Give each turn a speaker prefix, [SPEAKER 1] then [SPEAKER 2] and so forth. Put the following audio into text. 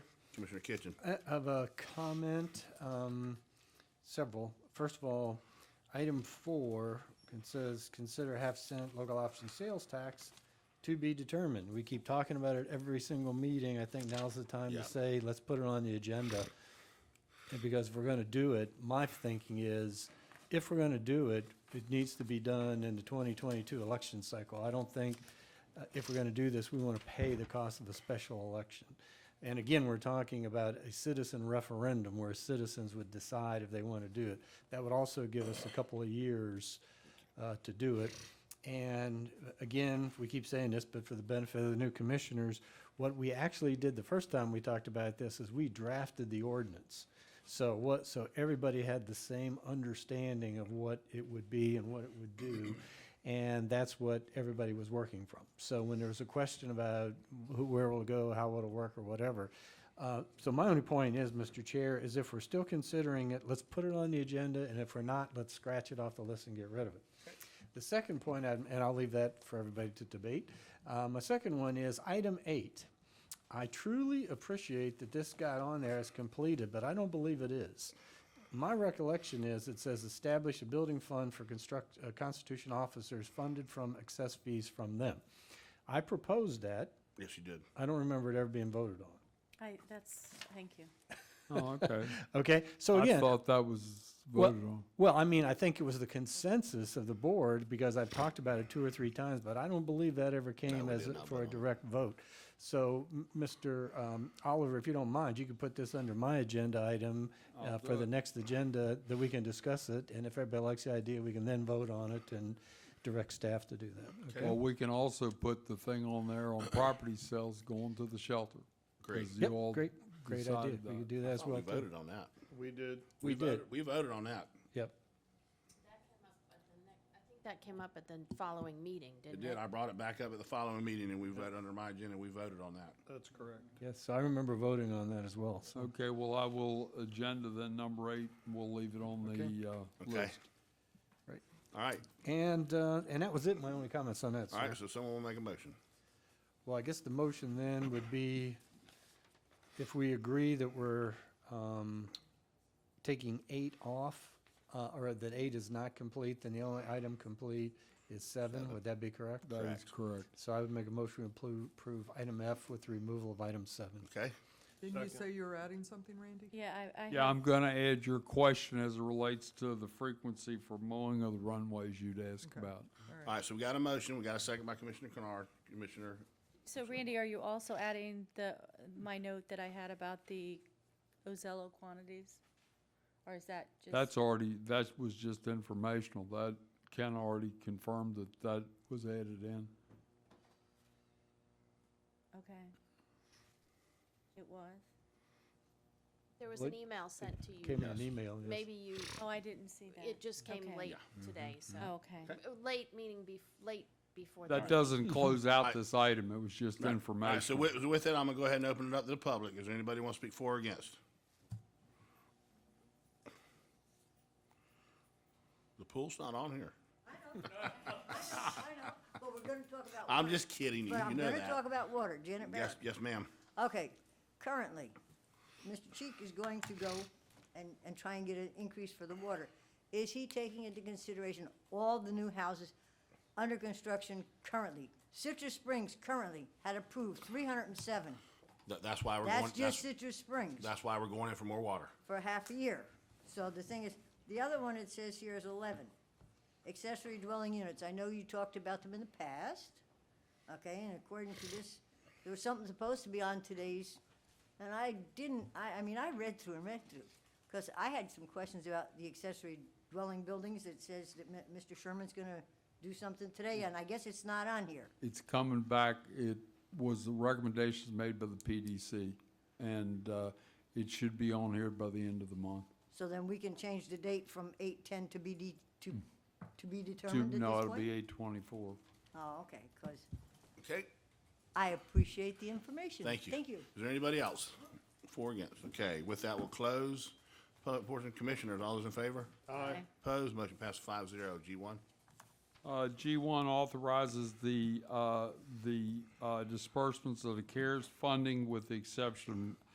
[SPEAKER 1] Commissioner Kitchen.
[SPEAKER 2] I have a comment, um, several. First of all, item four, it says, consider half cent local option sales tax to be determined. We keep talking about it every single meeting. I think now's the time
[SPEAKER 1] Yeah.
[SPEAKER 2] to say, let's put it on the agenda. And Because if we're gonna do it, my thinking is, if we're gonna do it, it needs to be done in the twenty twenty-two election cycle. I don't think, uh, if we're gonna do this, we wanna pay the cost of a special election. And again, we're talking about a citizen referendum where citizens would decide if they wanna do it. That would also give us a couple of years, uh, to do it. And uh, again, we keep saying this, but for the benefit of the new commissioners, what we actually did the first time we talked about this is we drafted the ordinance. So what, so everybody had the same understanding of what it would be and what it would do. And that's what everybody was working from. So when there was a question about who, where it'll go, how it'll work or whatever. Uh, so my only point is, Mr. Chair, is if we're still considering it, let's put it on the agenda. And if we're not, let's scratch it off the list and get rid of it. The second point, I'd- and I'll leave that for everybody to debate. Uh, My second one is item eight. I truly appreciate that this got on there as completed, but I don't believe it is. My recollection is it says establish a building fund for construct, uh, Constitution officers funded from excess fees from them. I proposed that.
[SPEAKER 1] Yes, you did.
[SPEAKER 2] I don't remember it ever being voted on.
[SPEAKER 3] I, that's, thank you.
[SPEAKER 4] Oh, okay.
[SPEAKER 2] Okay, so
[SPEAKER 4] I
[SPEAKER 2] again.
[SPEAKER 4] thought that was
[SPEAKER 2] Well-
[SPEAKER 4] voted on.
[SPEAKER 2] Well, I mean, I think it was the consensus of the board, because I've talked about it two or three times, but I don't believe that ever came
[SPEAKER 1] we
[SPEAKER 2] as,
[SPEAKER 1] did
[SPEAKER 2] a-
[SPEAKER 1] not
[SPEAKER 2] for
[SPEAKER 1] vote
[SPEAKER 2] a
[SPEAKER 1] on it.
[SPEAKER 2] direct vote. So, m- Mr. um, Oliver, if you don't mind, you could put this under my agenda item uh,
[SPEAKER 4] I'll
[SPEAKER 2] for
[SPEAKER 4] do
[SPEAKER 2] the
[SPEAKER 4] it.
[SPEAKER 2] next agenda, that we can discuss it, and if everybody likes the idea, we can then vote on it and direct staff to do that.
[SPEAKER 4] Well, we can also put the thing on there on property sales going to the shelter. 'cause
[SPEAKER 1] Great.
[SPEAKER 4] you
[SPEAKER 2] Yep,
[SPEAKER 4] all
[SPEAKER 2] great, great idea.
[SPEAKER 4] decided
[SPEAKER 2] We
[SPEAKER 4] that.
[SPEAKER 2] could do that as
[SPEAKER 1] Thought uh, Oh, We
[SPEAKER 2] well. too.
[SPEAKER 1] voted on that. We did.
[SPEAKER 2] We did.
[SPEAKER 1] voted- We voted on that.
[SPEAKER 2] Yep.
[SPEAKER 3] That came up at the following meeting,
[SPEAKER 1] It
[SPEAKER 3] didn't it?
[SPEAKER 1] did. I brought it back up at the following meeting and we voted under my agenda. We voted on that.
[SPEAKER 5] That's correct.
[SPEAKER 2] Yes, I remember voting on that as well, so.
[SPEAKER 4] Okay, well, I will agenda then number eight, and we'll leave it on the uh,
[SPEAKER 1] Okay.
[SPEAKER 4] list.
[SPEAKER 2] Right.
[SPEAKER 1] All right.
[SPEAKER 2] And, uh, and that was it, my only comments on that,
[SPEAKER 1] All
[SPEAKER 2] sir.
[SPEAKER 1] right. So someone will make a motion.
[SPEAKER 2] Well, I guess the motion then would be if we agree that we're um, taking eight off, uh, or that eight is not complete, then the only item complete is seven. Would that be correct?
[SPEAKER 4] That is correct.
[SPEAKER 2] So I would make a motion to appro- approve item F with the removal of item seven.
[SPEAKER 1] Okay.
[SPEAKER 6] Didn't you say you were adding something, Randy?
[SPEAKER 3] Yeah, I, I.
[SPEAKER 4] Yeah,
[SPEAKER 3] had-
[SPEAKER 4] I'm gonna add your question as it relates to the frequency for mowing of the runways you'd ask about.
[SPEAKER 1] All right. So we got a motion. We got a second by Commissioner Kennard. Commissioner,
[SPEAKER 3] So Randy, are you also adding the, my note that I had about the Ozello quantities? Or is that just?
[SPEAKER 4] That's already, that was just informational. That, Ken already confirmed that that was added in.
[SPEAKER 3] Okay. It was?
[SPEAKER 7] There was
[SPEAKER 2] What-
[SPEAKER 7] an email sent to you.
[SPEAKER 2] Came in an email, yes.
[SPEAKER 7] Maybe you,
[SPEAKER 3] Oh, I didn't see that.
[SPEAKER 7] it just came
[SPEAKER 3] Okay.
[SPEAKER 7] late today,
[SPEAKER 2] Mm-hmm.
[SPEAKER 7] so.
[SPEAKER 3] Oh, okay.
[SPEAKER 7] Uh, Late meaning bef, late before. the
[SPEAKER 4] That doesn't close out
[SPEAKER 1] Alright.
[SPEAKER 4] this item. It was just
[SPEAKER 1] All right, so
[SPEAKER 4] informational.
[SPEAKER 1] with, with that, I'm gonna go ahead and open it up to the public. Is there anybody want to speak for or against? The pool's not on here.
[SPEAKER 8] I know, but we're gonna talk about.
[SPEAKER 1] I'm
[SPEAKER 8] water.
[SPEAKER 1] just kidding you.
[SPEAKER 8] But
[SPEAKER 1] You
[SPEAKER 8] I'm
[SPEAKER 1] know
[SPEAKER 8] gonna talk
[SPEAKER 1] that.
[SPEAKER 8] about water, Janet
[SPEAKER 1] Yes,
[SPEAKER 8] Barrett.
[SPEAKER 1] yes, ma'am.
[SPEAKER 8] Okay, currently, Mr. Cheek is going to go and, and try and get an increase for the water. Is he taking into consideration all the new houses under construction currently? Citrus Springs currently had approved three hundred and seven.
[SPEAKER 1] That, that's why we're going,
[SPEAKER 8] That's just
[SPEAKER 1] that's,
[SPEAKER 8] Citrus Springs
[SPEAKER 1] that's why we're going in for more water.
[SPEAKER 8] for half a year. So the thing is, the other one it says here is eleven. Accessory dwelling units, I know you talked about them in the past, okay, and according to this, there was something supposed to be on today's, and I didn't, I, I mean, I read through and read through, because I had some questions about the accessory dwelling buildings that says that Mi- Mr. Sherman's gonna do something today, and I guess it's not on here.
[SPEAKER 4] It's coming back. It was the recommendations made by the PDC, and uh, it should be on here by the end of the month.
[SPEAKER 8] So then we can change the date from eight-ten to be de, to, to be
[SPEAKER 4] To-
[SPEAKER 8] determined at this point?
[SPEAKER 4] No, it'll be eight twenty-four.
[SPEAKER 8] Oh, okay, because
[SPEAKER 1] Okay,
[SPEAKER 8] I appreciate the information.
[SPEAKER 1] thank you.
[SPEAKER 8] Thank you.
[SPEAKER 1] Is there anybody else? For or against? Okay, with that, we'll close. Public portion commissioners, all those in favor? Aye. Opposed, motion passes five zero. G one.
[SPEAKER 4] Uh, G1 authorizes the, uh, the uh, disbursements of the CARES funding with the exception